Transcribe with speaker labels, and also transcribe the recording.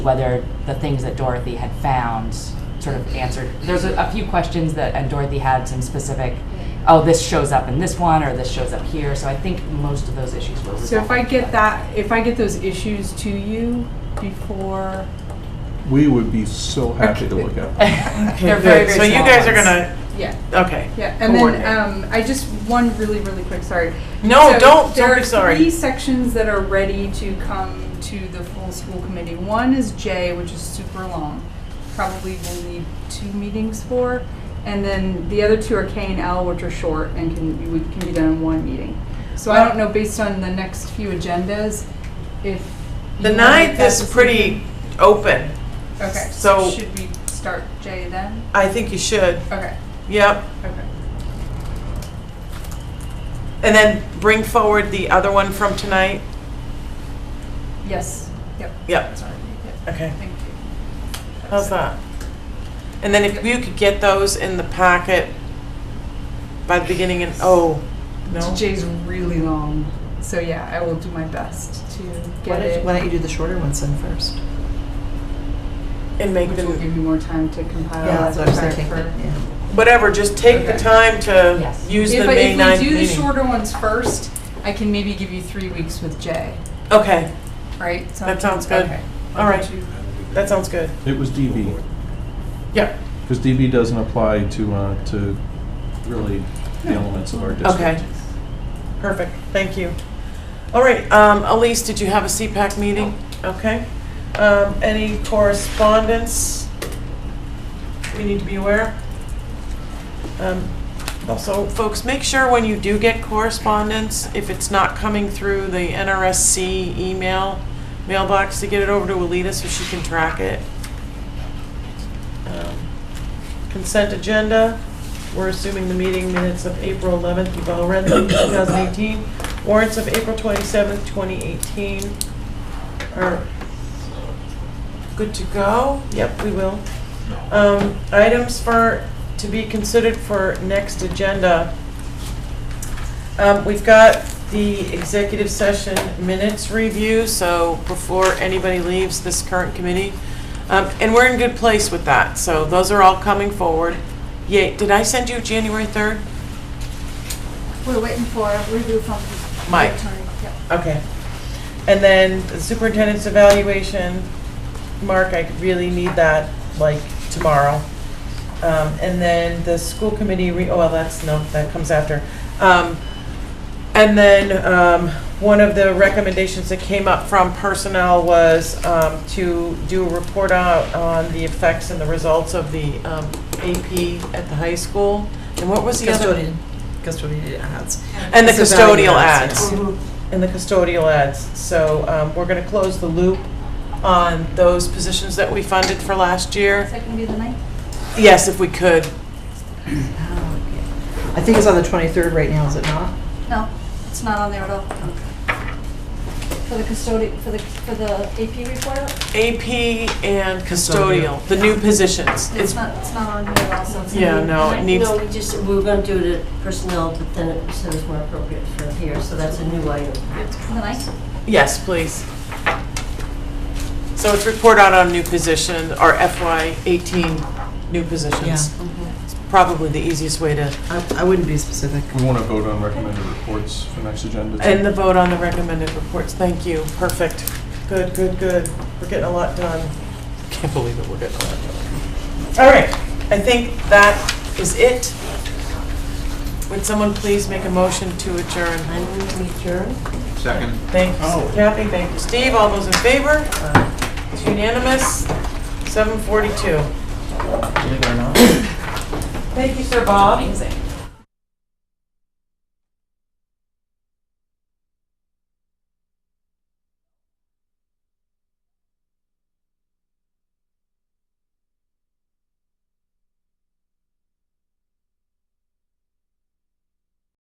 Speaker 1: whether the things that Dorothy had found sort of answered. There's a, a few questions that, and Dorothy had some specific, oh, this shows up in this one, or this shows up here, so I think most of those issues were resolved.
Speaker 2: So if I get that, if I get those issues to you before,
Speaker 3: We would be so happy to look at. them.
Speaker 1: They're very, very
Speaker 4: So you
Speaker 1: small
Speaker 4: guys are
Speaker 1: ones.
Speaker 4: gonna,
Speaker 2: yeah,
Speaker 4: okay.
Speaker 2: yeah, and
Speaker 4: Coordinate.
Speaker 2: then um, I just one really really quick. Sorry.
Speaker 4: No,
Speaker 2: So
Speaker 4: don't,
Speaker 2: There
Speaker 4: don't
Speaker 2: are
Speaker 4: be sorry.
Speaker 2: three sections that are ready to come to the full school committee. One is J, which is super long, probably will need two meetings for, and then the other two are K and L, which are short and can we can be done in one meeting. So I don't know based on the next few agendas if
Speaker 4: The
Speaker 2: you wanna make
Speaker 4: ninth
Speaker 2: that
Speaker 4: is
Speaker 2: decision.
Speaker 4: pretty open.
Speaker 2: Okay,
Speaker 4: So-
Speaker 2: so should we start J then?
Speaker 4: I think you should.
Speaker 2: Okay,
Speaker 4: Yep.
Speaker 2: okay.
Speaker 4: And then bring forward the other one from tonight.
Speaker 2: Yes, yep,
Speaker 4: Yep.
Speaker 2: sorry. Yep,
Speaker 4: Okay.
Speaker 2: Thank you.
Speaker 4: How's that? And then if you could get those in the packet by the beginning and, oh, no?
Speaker 2: J's really long, so yeah, I will do my best to
Speaker 5: Why
Speaker 2: get
Speaker 5: don't, why
Speaker 2: it,
Speaker 5: don't you do the shorter ones then first?
Speaker 4: And make
Speaker 2: which will
Speaker 4: them,
Speaker 2: give me more time to compile.
Speaker 5: Yeah, Oh, that's what I was thinking,
Speaker 2: for-
Speaker 5: yeah.
Speaker 4: whatever, just take the
Speaker 2: Okay.
Speaker 4: time to
Speaker 1: Yes.
Speaker 4: use the
Speaker 2: If,
Speaker 4: May
Speaker 2: I- if
Speaker 4: 9th
Speaker 2: we do the
Speaker 4: meeting.
Speaker 2: shorter ones first, I can maybe give you three weeks with J,
Speaker 4: Okay,
Speaker 2: right? So
Speaker 4: That
Speaker 2: I can-
Speaker 4: sounds good.
Speaker 2: okay.
Speaker 4: All
Speaker 2: Why
Speaker 4: right.
Speaker 2: don't you-
Speaker 4: that sounds good.
Speaker 3: It was DB,
Speaker 4: Yeah,
Speaker 3: because DB doesn't apply to, uh, to really the elements of our district.
Speaker 4: okay. Perfect, thank you. All right, um, Elise, did you have a CPAC meeting? Okay. Um, Any correspondence we need to be aware? Um, Also, folks, make sure when you do get correspondence, if it's not coming through the NRSC email mailbox, to get it over to Alita so she can track it. Um, Consent agenda, we're assuming the meeting minutes of April 11th, you've all read them, 2018. Warrants of April 27th, 2018 are good to go. Yep, we will. Um, Items for, to be considered for next agenda. Um, We've got the executive session minutes review, so before anybody leaves this current committee. Um, And we're in good place with that, so those are all coming forward. Yay, did I send you January 3rd?
Speaker 6: We're waiting for a review from
Speaker 4: Mike.
Speaker 6: the attorney. Yep.
Speaker 4: Okay. And then the superintendent's evaluation, Mark, I really need that, like, tomorrow. Um, and then the school committee re, oh, well, that's, no, that comes after. Um, and then, um, one of the recommendations that came up from personnel was, um, to do a report out on the effects and the results of the, um, AP at the high school. And what was the other?
Speaker 5: Custodian, custodian ads.
Speaker 4: And the
Speaker 5: It's about
Speaker 4: custodial
Speaker 5: ads,
Speaker 4: ads. And the custodial ads. So um, we're going to close the loop on those positions that we funded for last
Speaker 6: Is
Speaker 4: year.
Speaker 6: that gonna be the night?
Speaker 4: Yes, if we could.
Speaker 5: I think it's on the 23rd right now, is it not?
Speaker 6: No, it's not on there at all. For the custodian, for the, for the AP report, out?
Speaker 4: AP and custodial, the new positions.
Speaker 6: it's
Speaker 4: It's,
Speaker 6: not, it's not on here at all, so it's.
Speaker 4: yeah, no, it needs,
Speaker 7: No, we just, we were gonna do it at personnel, but then it said it was more appropriate for here, so that's a new item.
Speaker 6: The night?
Speaker 4: yes, please. So it's report out on new position, or FY eighteen new positions. Probably the easiest way to,
Speaker 5: I, I wouldn't be specific.
Speaker 3: We want to vote on recommended reports for next agenda. too.
Speaker 4: and the vote on the recommended reports. Thank you. Perfect. Good, good, good. We're getting a lot done. Can't believe it, we're getting a lot done. All right, I think that is it. Would someone please make a motion to adjourn?
Speaker 7: I'm going to adjourn.
Speaker 8: Second.
Speaker 4: Thank you, Kathy, thank you, Steve, all those in favor? It's unanimous, 7:42. Thank you, Sir Bob.
Speaker 1: Amazing.